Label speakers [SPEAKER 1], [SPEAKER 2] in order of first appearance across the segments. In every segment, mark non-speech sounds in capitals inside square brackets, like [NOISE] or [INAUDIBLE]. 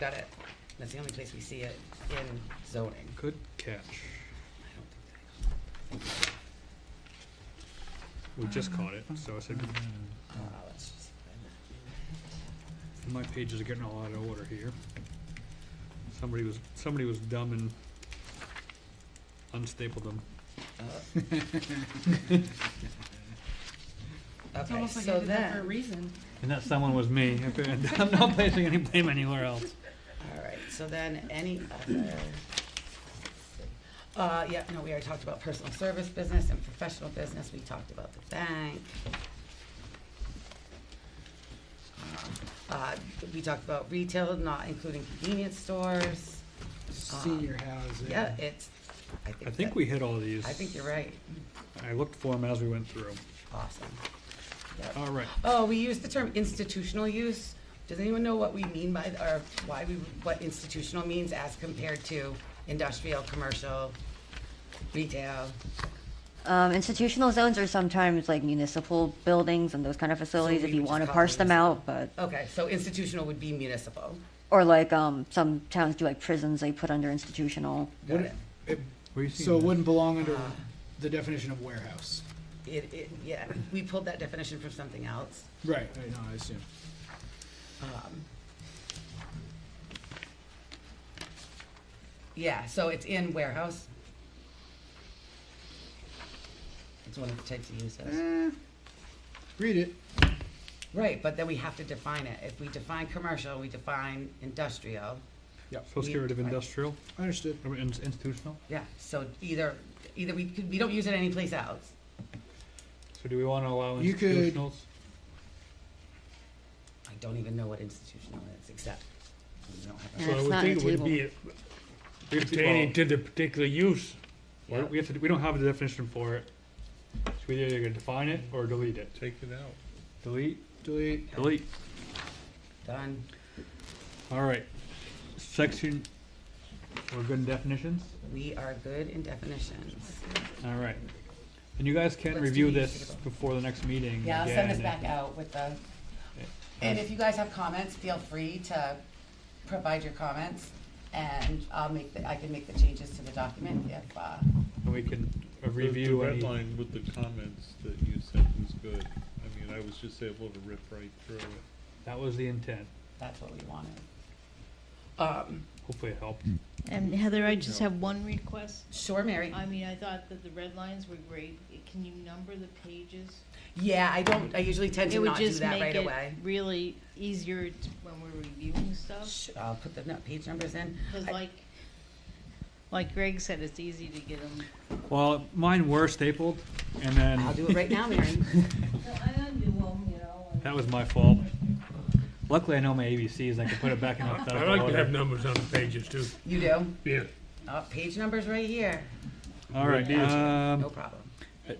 [SPEAKER 1] got it. That's the only place we see it in zoning.
[SPEAKER 2] Good catch.
[SPEAKER 1] I don't think that-
[SPEAKER 2] We just
[SPEAKER 1] Uh-huh.
[SPEAKER 2] caught it, so I said,
[SPEAKER 1] Uh, let's just find
[SPEAKER 2] my pages are getting all out of order here. Somebody was, somebody was dumb and unstapled them.
[SPEAKER 1] that. Uh,
[SPEAKER 3] It's
[SPEAKER 1] Okay,
[SPEAKER 3] almost like I
[SPEAKER 1] so
[SPEAKER 3] did that for a
[SPEAKER 1] then,
[SPEAKER 3] reason.
[SPEAKER 2] And that someone was me. [LAUGHS] I'm not placing any blame anywhere else.
[SPEAKER 1] all right, so then any other. Uh, yeah, no, we already talked about personal service business and professional business. We talked about the bank. Uh, we talked about retail, not including convenience stores. Um,
[SPEAKER 4] Senior housing.
[SPEAKER 1] Yeah, it's, I think.
[SPEAKER 2] I think
[SPEAKER 1] that-
[SPEAKER 2] we hit all these.
[SPEAKER 1] I think you're right.
[SPEAKER 2] I looked for them as we went through.
[SPEAKER 1] Awesome. Yep.
[SPEAKER 2] All right.
[SPEAKER 1] Oh, we use the term institutional use. Does anyone know what we mean by, th- or why we, what institutional means as compared to industrial, commercial, retail?
[SPEAKER 5] Um, institutional zones are sometimes like municipal buildings and those kind of facilities
[SPEAKER 1] we
[SPEAKER 5] if you
[SPEAKER 1] would
[SPEAKER 5] want to
[SPEAKER 1] just call
[SPEAKER 5] parse them
[SPEAKER 1] these-
[SPEAKER 5] out, but
[SPEAKER 1] Okay, so institutional would be municipal.
[SPEAKER 5] or like um, some towns do like prisons they put under institutional.
[SPEAKER 1] Got it.
[SPEAKER 4] It-
[SPEAKER 2] Were you
[SPEAKER 4] So
[SPEAKER 2] seeing
[SPEAKER 4] it
[SPEAKER 2] that?
[SPEAKER 4] wouldn't belong under the definition of warehouse.
[SPEAKER 1] It, it, yeah, we pulled that definition from something else.
[SPEAKER 4] Right, I know, I assume.
[SPEAKER 1] Um, Yeah, so it's in warehouse. It's one of the types of uses.
[SPEAKER 4] Eh, Read it.
[SPEAKER 1] Right, but then we have to define it. If we define commercial, we define industrial.
[SPEAKER 2] So let's get rid of industrial,
[SPEAKER 4] Understood.
[SPEAKER 2] or in- institutional.
[SPEAKER 1] Yeah, so either, either we, could- we don't use it anyplace else.
[SPEAKER 2] So do we want to allow
[SPEAKER 4] You could-
[SPEAKER 2] institutionals?
[SPEAKER 1] I don't even know what institutional is, except we don't have.
[SPEAKER 5] Yeah,
[SPEAKER 6] So I
[SPEAKER 5] it's
[SPEAKER 6] would
[SPEAKER 5] not in
[SPEAKER 6] think it
[SPEAKER 5] the
[SPEAKER 6] would be pertaining to the particular use.
[SPEAKER 1] a-
[SPEAKER 2] Well, We have to, we don't have a definition for it. So we either gonna define it or delete it.
[SPEAKER 6] Take it out.
[SPEAKER 2] Delete,
[SPEAKER 4] Delete.
[SPEAKER 2] delete.
[SPEAKER 1] Done.
[SPEAKER 2] All right. Section, we're good in definitions?
[SPEAKER 1] We are good in definitions.
[SPEAKER 2] All right. And you guys can
[SPEAKER 1] Let's
[SPEAKER 2] review
[SPEAKER 1] do these
[SPEAKER 2] this
[SPEAKER 1] together.
[SPEAKER 2] before the next meeting.
[SPEAKER 1] Yeah, I'll send this
[SPEAKER 2] again.
[SPEAKER 1] back out with the, and if you guys have comments, feel free to provide your comments, and I'll make, the I can make the changes to the document if, uh,
[SPEAKER 2] And we can uh,
[SPEAKER 6] The-
[SPEAKER 2] review
[SPEAKER 6] The
[SPEAKER 2] any.
[SPEAKER 6] red line with the comments that you sent was good. I mean, I was just able to rip right through it.
[SPEAKER 2] That was the intent.
[SPEAKER 1] that's what we wanted. Um,
[SPEAKER 2] Hopefully it helped.
[SPEAKER 7] And Heather, I just have one request.
[SPEAKER 1] sure, Mary?
[SPEAKER 7] I mean, I thought that the red lines were great. Can you number the pages?
[SPEAKER 1] Yeah, I don't, I usually tend
[SPEAKER 7] It
[SPEAKER 1] to
[SPEAKER 7] would
[SPEAKER 1] not do
[SPEAKER 7] just
[SPEAKER 1] that
[SPEAKER 7] make
[SPEAKER 1] right
[SPEAKER 7] it
[SPEAKER 1] away.
[SPEAKER 7] really easier to- when we're reviewing stuff.
[SPEAKER 1] Sh- I'll put the no- page numbers in.
[SPEAKER 7] Because
[SPEAKER 1] I-
[SPEAKER 7] like, like Greg said, it's easy to get them.
[SPEAKER 2] Well, mine were stapled and then.
[SPEAKER 1] I'll do it right now, Mary.
[SPEAKER 2] [LAUGHS] That was my fault. Luckily, I know my ABCs. I can put it back in
[SPEAKER 6] [LAUGHS] I
[SPEAKER 2] alphabetical
[SPEAKER 6] like to have
[SPEAKER 2] order.
[SPEAKER 6] numbers on the pages too.
[SPEAKER 1] You do?
[SPEAKER 6] Yeah.
[SPEAKER 1] Oh, page number's right here.
[SPEAKER 2] All right.
[SPEAKER 1] No
[SPEAKER 2] Um,
[SPEAKER 1] problem.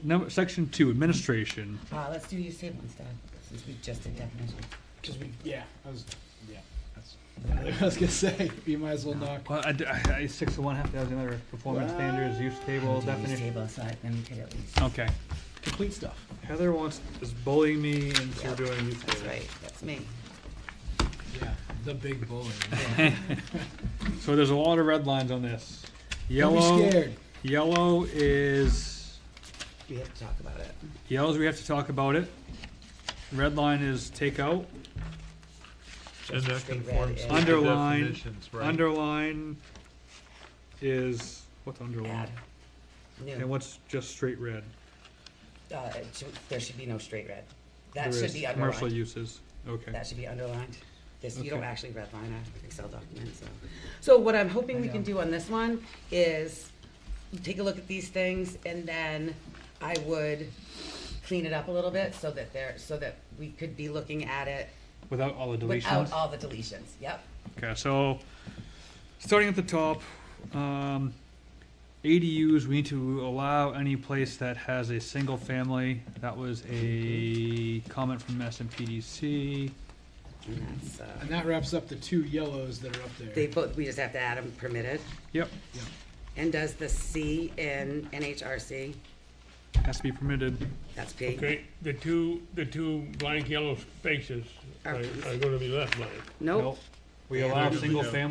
[SPEAKER 2] number section two, administration.
[SPEAKER 1] Uh, let's do use table instead, since we just did definitions.
[SPEAKER 4] Cause we, yeah, I was, yeah, [LAUGHS] that's, I was gonna say, you might as well knock.
[SPEAKER 2] Well, I, d- I- I- six to one half the other performance standards, use table
[SPEAKER 1] We'll do Use
[SPEAKER 2] definition.
[SPEAKER 1] table, so I- then we could at least,
[SPEAKER 2] Okay.
[SPEAKER 4] Complete stuff.
[SPEAKER 2] Heather wants is bullying me into
[SPEAKER 1] Yep.
[SPEAKER 2] doing use
[SPEAKER 1] that's
[SPEAKER 2] table.
[SPEAKER 1] right, that's me.
[SPEAKER 4] Yeah, the big bully.
[SPEAKER 2] [LAUGHS] So there's a lot of red lines on this.
[SPEAKER 4] Don't be
[SPEAKER 2] Yellow.
[SPEAKER 4] scared.
[SPEAKER 2] Yellow is
[SPEAKER 1] We have to talk about it.
[SPEAKER 2] yellows. We have to talk about it. Red line is take out.
[SPEAKER 6] And that
[SPEAKER 1] straight red
[SPEAKER 6] conforms to
[SPEAKER 1] and-
[SPEAKER 6] the
[SPEAKER 2] Underline,
[SPEAKER 6] definitions, right?
[SPEAKER 2] Underline is what's underline.
[SPEAKER 1] Add.
[SPEAKER 2] And
[SPEAKER 1] New,
[SPEAKER 2] what's just straight red?
[SPEAKER 1] uh, it should- there should be no straight red. That
[SPEAKER 2] There
[SPEAKER 1] should
[SPEAKER 2] is
[SPEAKER 1] be
[SPEAKER 2] Commercial
[SPEAKER 1] underlined.
[SPEAKER 2] uses, okay.
[SPEAKER 1] That should be underlined. This, you don't
[SPEAKER 2] Okay.
[SPEAKER 1] actually redline a Excel document, so. So what I'm hoping
[SPEAKER 4] I
[SPEAKER 1] we can
[SPEAKER 4] know.
[SPEAKER 1] do on this one is take a look at these things and then I would clean it up a little bit so that there, so that we could be looking at it
[SPEAKER 2] Without all the
[SPEAKER 1] without
[SPEAKER 2] deletions?
[SPEAKER 1] all the deletions, yep.
[SPEAKER 2] Okay, so, starting at the top, um, ADUs, we need to allow any place that has a single family. That was a comment from SMPDC.
[SPEAKER 1] And that's, uh,
[SPEAKER 4] And that wraps up the two yellows that are up there.
[SPEAKER 1] They both, we just have to add them permitted.
[SPEAKER 2] Yep,
[SPEAKER 1] And does the C in NHRC,
[SPEAKER 2] has to be permitted.
[SPEAKER 1] that's P?
[SPEAKER 6] Okay, the two, the two blank yellow spaces are
[SPEAKER 1] Are-
[SPEAKER 6] are gonna be left blank.
[SPEAKER 1] Nope,
[SPEAKER 2] We
[SPEAKER 1] Yeah.
[SPEAKER 2] allow
[SPEAKER 6] Usually
[SPEAKER 2] single
[SPEAKER 6] no.
[SPEAKER 2] family